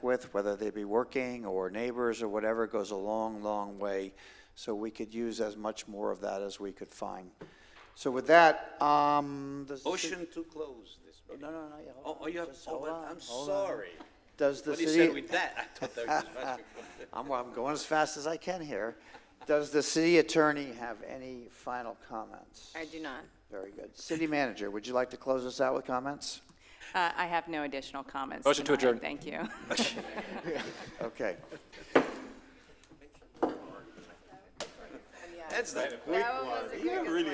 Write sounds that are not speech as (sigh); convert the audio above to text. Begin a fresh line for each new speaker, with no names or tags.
with, whether they be working or neighbors or whatever, goes a long, long way. So we could use as much more of that as we could find. So with that, um. does the ci-
Motion to close this meeting.
No, no, no, yeah,
Oh,
hold
oh,
on,
you have,
just
oh,
hold
well,
on,
I'm
hold on.
sorry.
Does the
What he
city?
said with that, I thought that was much.
(laughs) I'm, I'm going as fast as I can here. Does the city attorney have any final comments?
I do not.
Very good. City manager, would you like to close us out with comments?
Uh, I have no additional comments.
Motion to adjourn.
tonight. Thank you.
Okay.
That's the
That one was a good one.